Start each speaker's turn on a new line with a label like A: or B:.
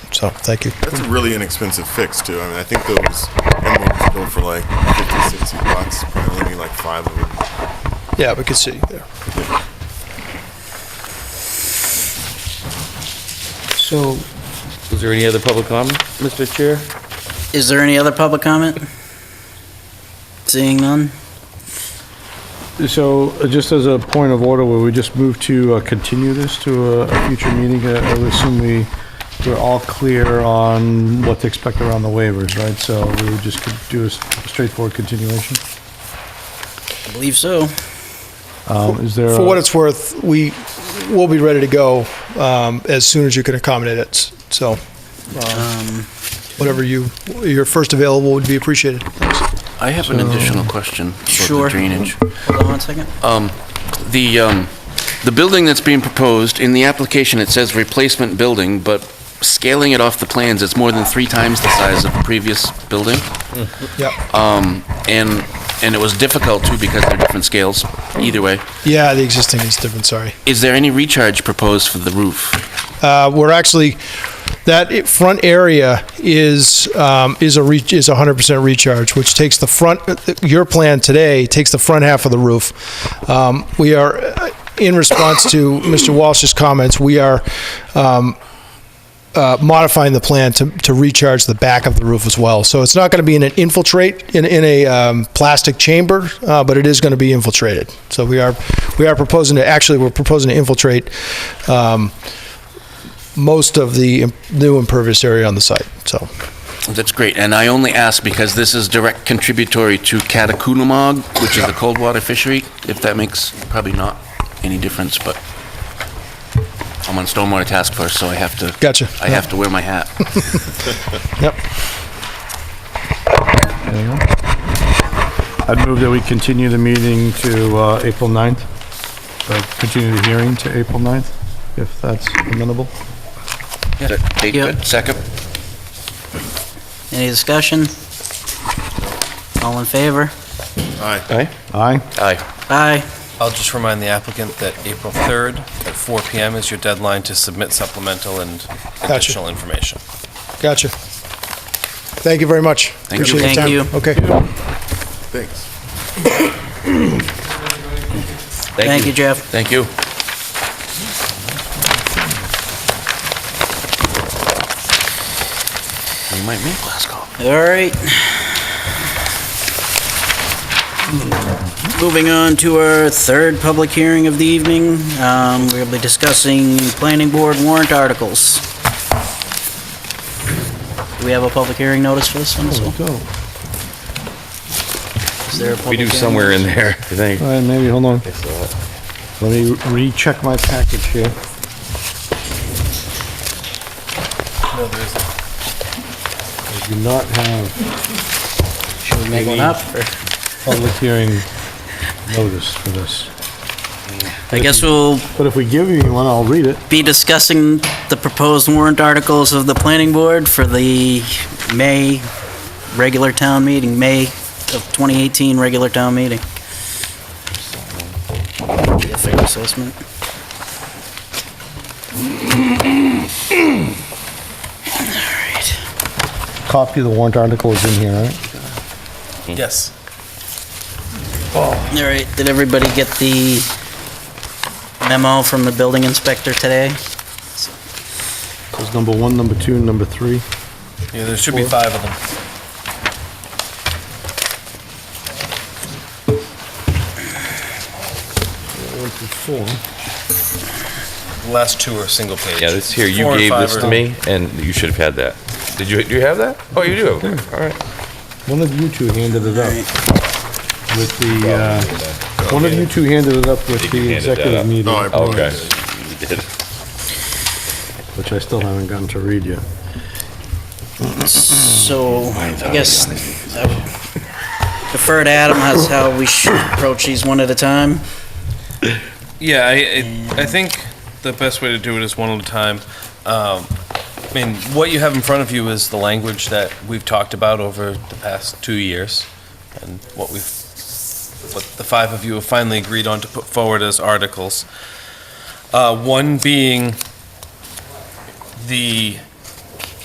A: So, thank you.
B: That's a really inexpensive fix too. I mean, I think those emblems were built for like 50, 60 bucks. Probably only need like five of them.
A: Yeah, we could see there.
C: So,
D: Is there any other public comment, Mr. Chair?
C: is there any other public comment? Seeing none?
E: So uh, just as a point of order, will we just move to uh, continue this to a- a future meeting? Uh, I would assume we, we're all clear on what to expect around the waivers, right? So we would just could do a s- straightforward continuation?
C: I believe so.
E: Um, Is there?
A: For what
E: a-
A: it's worth, we will be ready to go um, as soon as you can accommodate it. So,
C: Um,
A: whatever you, your first available would be appreciated.
F: I have an additional question about
C: Sure.
F: the drainage.
C: Hold on one second.
F: Um, The, um, the building that's being proposed, in the application, it says replacement building, but scaling it off the plans, it's more than three times the size of the previous building.
A: Yeah,
F: Um, And, and it was difficult too because they're different scales, either way.
A: yeah, the existing is different, sorry.
F: Is there any recharge proposed for the roof?
A: Uh, We're actually, that i- front area is, um, is a, re- is 100% recharge, which takes the front, your plan today takes the front half of the roof. Um, We are, uh, in response to Mr. Walsh's comments, we are um, uh, modifying the plan to, to recharge the back of the roof as well. So it's not going to be in an infiltrate, in, in a um, plastic chamber, uh, but it is going to be infiltrated. So we are, we are proposing to, actually, we're proposing to infiltrate um, most of the im- new impervious area on the site, so.
F: That's great, and I only ask because this is direct contributory to Catacoulomog, which is the cold water fishery, if that makes probably not any difference, but I'm on Stormwater Task Force, so I have to.
A: Gotcha.
F: I have to wear my hat.
A: Yep.
E: anyone? I'd move that we continue the meeting to uh, April 9th. Uh, Continue the hearing to April 9th, if that's amenable.
F: Is that date
C: Yeah.
F: good? Second?
C: Any discussion? All in favor?
B: Aye.
E: Aye?
F: Aye.
C: Aye.
G: I'll just remind the applicant that April 3rd at 4 PM is your deadline to submit supplemental and
A: Gotcha.
G: additional information.
A: Gotcha. Thank you very much.
F: Thank you.
A: Appreciate your
C: Thank
A: time. Okay.
B: Thanks.
C: Thank you, Jeff.
F: Thank you. We might make Glasgow.
C: All right. Moving on to our third public hearing of the evening, um, we'll be discussing planning board warrant articles. Do we have a public hearing notice for this one as well?
E: Go.
C: Is there
D: We
C: a public
D: do
C: hearing
D: somewhere in
C: notice?
D: there, I think.
E: All right, maybe, hold on. Let me recheck my package here.
G: No, there isn't.
E: I do not have
C: Should we make one up? or-
E: public hearing notice for this.
C: I guess we'll
E: But if we give you one, I'll read it.
C: be discussing the proposed warrant articles of the planning board for the May regular town meeting, May of 2018 regular town meeting. Be a fair assessment.
E: Copy of the warrant article is in here, right?
G: Yes.
C: All right, did everybody get the memo from the building inspector today?
E: There's number one, number two, and number three.
G: Yeah, there should be five of them.
E: One through four.
G: The last two are single page.
D: Yeah, this here,
G: Four
D: you
G: and
D: gave
G: five
D: this
G: are-
D: to me, and you should have had that. Did you, do you have that? Oh, you do, all right.
E: One of you two handed it up with the, uh, one of you two handed it up with the
D: Handed that
E: executive
D: up. Oh,
E: meeting,
B: No, I
D: Okay.
B: apologize.
D: You did.
E: which I still haven't gotten to read yet.
C: So, I guess I would defer to Adam as how we should approach these one at a time.
G: Yeah, I, I, I think the best way to do it is one at a time. Um, I mean, what you have in front of you is the language that we've talked about over the past two years, and what we've, what the five of you have finally agreed on to put forward as articles. Uh, one being the